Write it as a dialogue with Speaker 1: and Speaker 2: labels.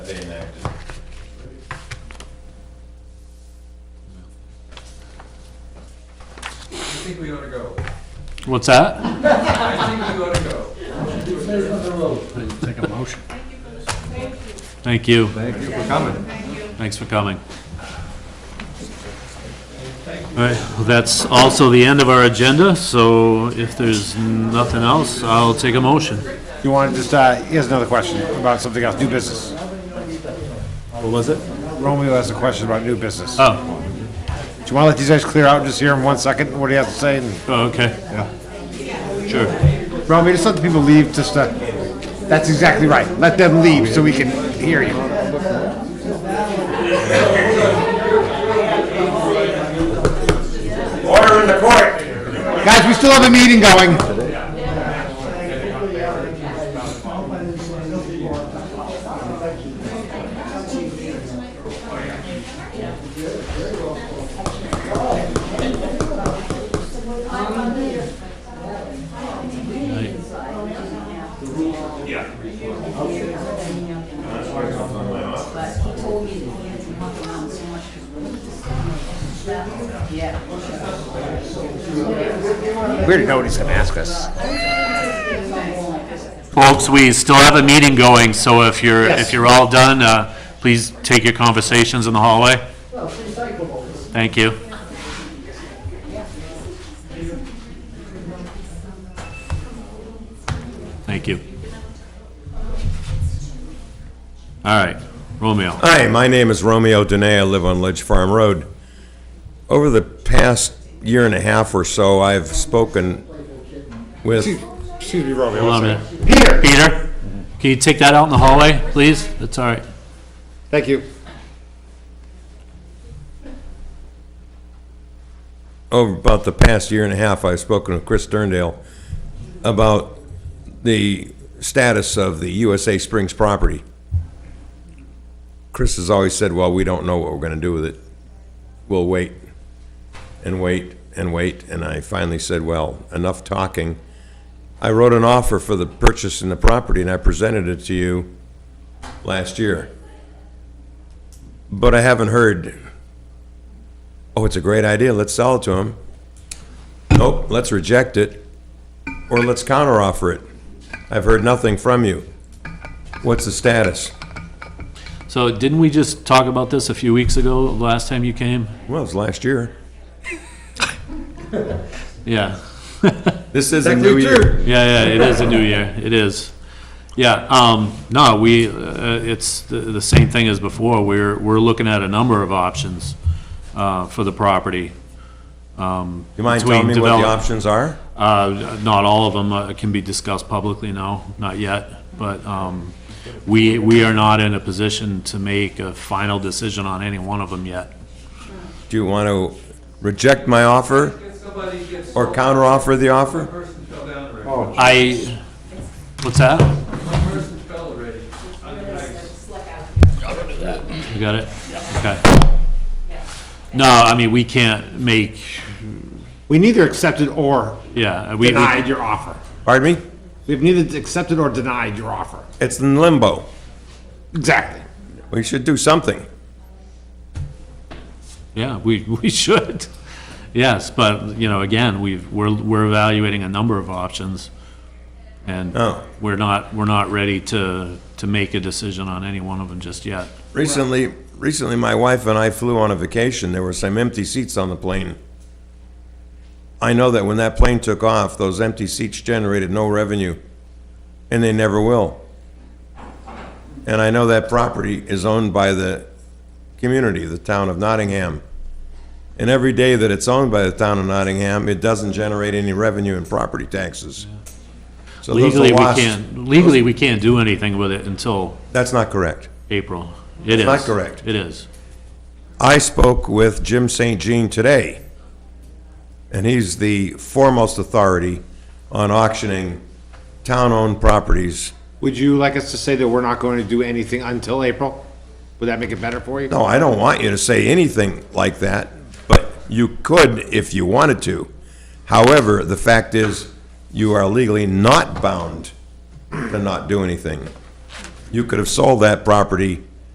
Speaker 1: they enacted.
Speaker 2: I think we ought to go.
Speaker 3: What's that?
Speaker 2: I think we ought to go.
Speaker 3: Take a motion. Thank you.
Speaker 2: Thank you for coming.
Speaker 3: Thanks for coming. All right, well, that's also the end of our agenda, so if there's nothing else, I'll take a motion.
Speaker 4: You want to just, uh, here's another question about something else, new business.
Speaker 3: What was it?
Speaker 4: Romeo has a question about new business. Do
Speaker 3: Oh,
Speaker 4: you want to let these guys clear out and just hear him one second, what he has to say? and-
Speaker 3: oh, okay,
Speaker 4: Yeah.
Speaker 3: sure.
Speaker 4: Romeo, just let the people leave, just, uh, that's exactly right. Let them leave so we can hear you.
Speaker 1: Order in the court!
Speaker 4: Guys, we still have a meeting going.
Speaker 3: Right.
Speaker 5: but he told me that he had to walk around so much because. Yeah.
Speaker 4: We already know what he's gonna ask us.
Speaker 3: Folks, we still have a meeting going, so if you're, if you're all done, uh, please take your conversations in the hallway. Thank you. Thank you. All right, Romeo.
Speaker 1: Hi, my name is Romeo Dene. I live on Ledge Farm Road. Over the past year and a half or so, I've spoken with,
Speaker 4: Excuse me, Romeo.
Speaker 3: Hold on
Speaker 4: one
Speaker 3: a
Speaker 4: second.
Speaker 3: minute. Peter. Peter, can you take that out in the hallway, please? That's all right.
Speaker 4: Thank you.
Speaker 1: over about the past year and a half, I've spoken with Chris Sterndale about the status of the USA Springs property. Chris has always said, well, we don't know what we're going to do with it. We'll wait and wait and wait. And I finally said, well, enough talking. I wrote an offer for the purchase in the property and I presented it to you last year. But I haven't heard, oh, it's a great idea, let's sell it to him. Nope, let's reject it, or let's counteroffer it. I've heard nothing from you. What's the status?
Speaker 3: So didn't we just talk about this a few weeks ago, the last time you came?
Speaker 1: Well, it's last year.
Speaker 3: Yeah.
Speaker 1: This is a new year.
Speaker 3: Yeah, yeah, it is a new year, it is. Yeah, um, no, we, uh, it's the, the same thing as before, we're, we're looking at a number of options, uh, for the property.
Speaker 1: You mind telling me what
Speaker 3: Between
Speaker 1: the
Speaker 3: develop-
Speaker 1: options are?
Speaker 3: Uh, not all of them uh, can be discussed publicly, no, not yet, but, um, we, we are not in a position to make a final decision on any one of them yet.
Speaker 1: Do you want to reject my offer,
Speaker 2: If somebody gets,
Speaker 1: or counteroffer the offer?
Speaker 2: person fell down already.
Speaker 3: I, what's that?
Speaker 2: One person fell already.
Speaker 3: You got it? Okay. No, I mean, we can't make,
Speaker 4: We neither accepted or
Speaker 3: yeah, we. we-
Speaker 4: denied your offer.
Speaker 1: Pardon me?
Speaker 4: We've neither accepted or denied your offer.
Speaker 1: It's in limbo.
Speaker 4: Exactly.
Speaker 1: We should do something.
Speaker 3: Yeah, we, we should. Yes, but, you know, again, we've, we're, we're evaluating a number of options. And
Speaker 1: Oh.
Speaker 3: we're not, we're not ready to, to make a decision on any one of them just yet.
Speaker 1: Recently, recently, my wife and I flew on a vacation. There were some empty seats on the plane. I know that when that plane took off, those empty seats generated no revenue, and they never will. And I know that property is owned by the community, the town of Nottingham. And every day that it's owned by the town of Nottingham, it doesn't generate any revenue in property taxes. So those are
Speaker 3: Legally, we
Speaker 1: lost-
Speaker 3: can't, legally, we can't do anything with it until
Speaker 1: That's not correct.
Speaker 3: April. It is.
Speaker 1: not correct.
Speaker 3: It is.
Speaker 1: I spoke with Jim St. Jean today, and he's the foremost authority on auctioning town-owned properties.
Speaker 4: Would you like us to say that we're not going to do anything until April? Would that make it better for you?
Speaker 1: No, I don't want you to say anything like that, but you could if you wanted to. However, the fact is, you are legally not bound to not do anything. You could have sold that property